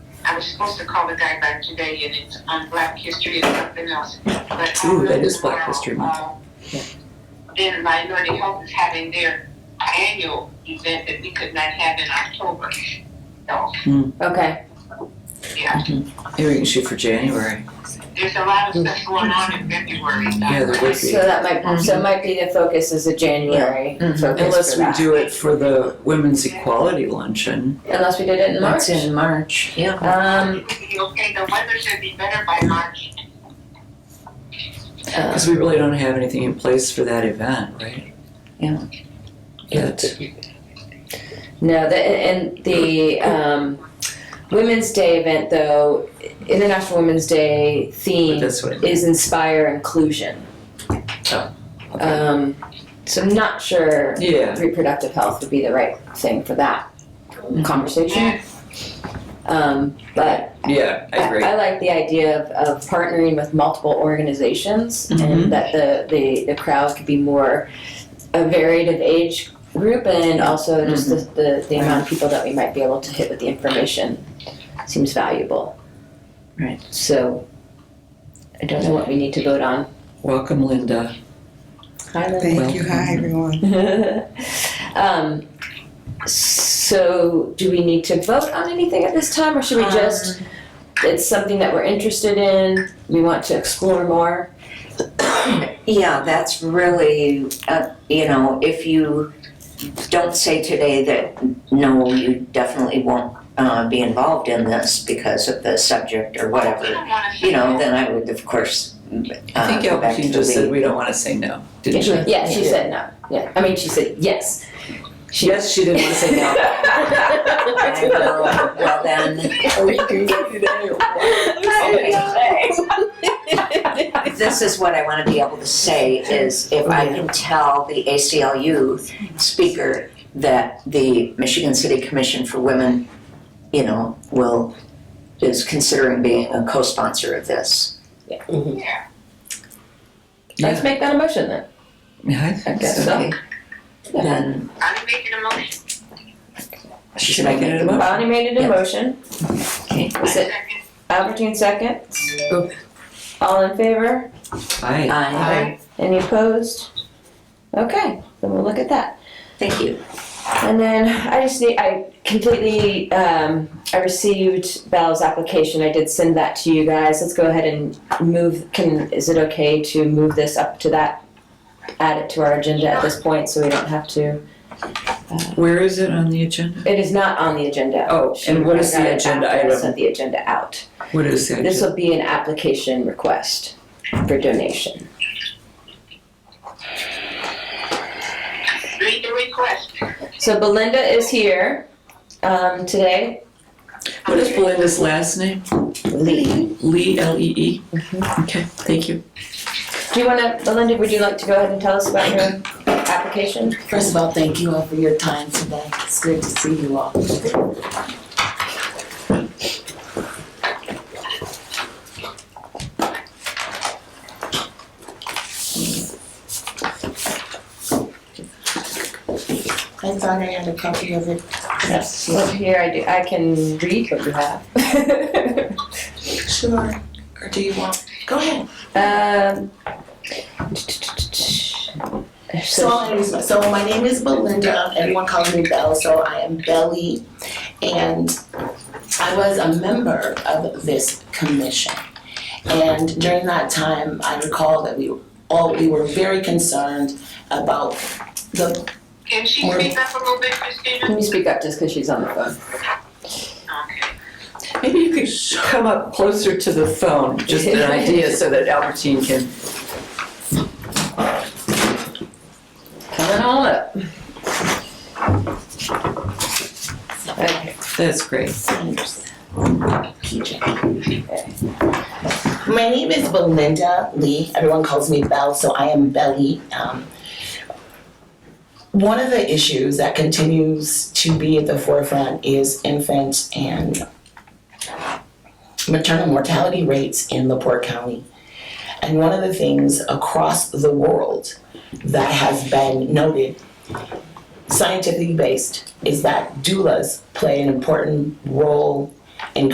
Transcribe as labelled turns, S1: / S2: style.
S1: was supposed to call the guy back today and it's on Black History and something else, but.
S2: Ooh, that is Black History Month.
S1: Uh, Then Minority Health is having their annual event that we could not have in October. So,
S3: Okay,
S1: yeah,
S2: Maybe we can shoot for January.
S1: there's a lot of stuff going on in February.
S2: Hmm. Yeah, there would
S3: so
S2: be.
S3: that might, so
S4: Mm-hmm.
S3: it might be the focus is a January focus
S4: Mhm.
S3: for
S2: Unless we
S3: that.
S2: do it for the Women's Equality Luncheon.
S3: Unless we did it in March.
S4: That's in March. Yeah.
S3: Um,
S1: It would be okay, the weather should be better by March.
S4: Uh,
S2: Because we really don't have anything in place for that event, right?
S4: Yeah.
S2: Yet.
S3: no, the, and the, um, Women's Day event though, International Women's Day
S2: But
S3: theme
S2: that's what I mean.
S3: is inspire inclusion.
S2: Oh, okay.
S3: Um, so I'm not sure
S2: Yeah.
S3: reproductive health would be the right thing for that conversation.
S1: Yes,
S3: Um, but
S2: Yeah, I agree.
S3: I, like the idea of, of partnering with multiple organizations
S2: Mhm.
S3: and that the, the, the crowd could be more a varied of age group and also just
S2: Mm-hmm.
S3: the, the, the amount of people that we might be able to hit with the information seems valuable.
S4: Right.
S3: So I don't know what we need to vote on.
S2: Welcome, Linda.
S3: Hi, Lynn.
S5: Thank you.
S2: Welcome.
S5: Hi, everyone.
S3: um, so, do we need to vote on anything at this time, or should we just? It's something that we're interested in. We want to explore more.
S4: Yeah, that's really, uh, you know, if you don't say today that, no, you definitely won't uh, be involved in this because of the subject or
S1: we
S4: whatever,
S1: don't wanna say
S4: you know,
S1: that.
S4: then I would, of course,
S2: I
S4: uh,
S2: think
S4: go back to
S2: Alpine
S4: the
S2: just said
S4: lead.
S2: we don't want to say no, didn't she?
S3: Yeah, she said no. Yeah, I mean, she said yes. She-
S2: Yes, she didn't want to say no.
S4: I will, well then, this is what I want to be able to say is if I can tell the ACLU speaker that the Michigan City Commission for Women, you know, will, is considering being a co-sponsor of this.
S1: Yeah.
S3: Let's make that a motion then.
S2: Yeah, I think
S3: Okay.
S2: so.
S4: Then
S1: I'm making a motion.
S2: Should I get it a motion?
S3: Bonnie made it a
S4: Yeah.
S3: motion.
S4: Okay.
S3: Is it
S1: Second.
S3: Albertine second?
S2: Oh.
S3: All in favor?
S2: Aye.
S4: I,
S3: Any opposed? Okay, then we'll look at that.
S4: thank you.
S3: And then I just need, I completely, um, I received Belle's application. I did send that to you guys. Let's go ahead and move, can, is it okay to move this up to that? Add it to our agenda at this point so we don't have to,
S2: Where is it on the agenda?
S3: it is not on the agenda.
S2: Oh,
S3: She-
S2: and what is
S3: I got
S2: the
S3: it
S2: agenda
S3: after I
S2: item?
S3: Sent the agenda out.
S2: What is the
S3: This
S2: agenda?
S3: will be an application request for donation.
S1: Read the request.
S3: So Belinda is here, um, today.
S2: What is Belinda's last name?
S3: Lee.
S2: Lee, L-E-E? Okay, thank you.
S3: Do you wanna, Belinda, would you like to go ahead and tell us about your application?
S6: First of all, thank you all for your time today. It's good to see you all. I thought I had a copy of it. Yes.
S3: Well, here I do, I can read what you have.
S6: Sure. Or do you want, go ahead.
S3: Um.
S6: So,
S3: So,
S6: I'm- so my name is Belinda, everyone calls me Belle, so I am Belly. And I was a member of this commission. And during that time, I recall that we all, we were very concerned about the,
S1: Can she speak up a little bit, Christina?
S3: can you speak up just because she's on the phone?
S2: Hmm.
S1: Okay.
S2: Maybe you could come up closer to the phone, just an idea, so that Albertine can,
S3: Coming on up. Okay,
S2: that's great.
S6: My name is Belinda Lee. Everyone calls me Belle, so I am Belly. Um, one of the issues that continues to be at the forefront is infant and maternal mortality rates in LaPorte County. And one of the things across the world that has been noted, scientifically based, is that doulas play an important role in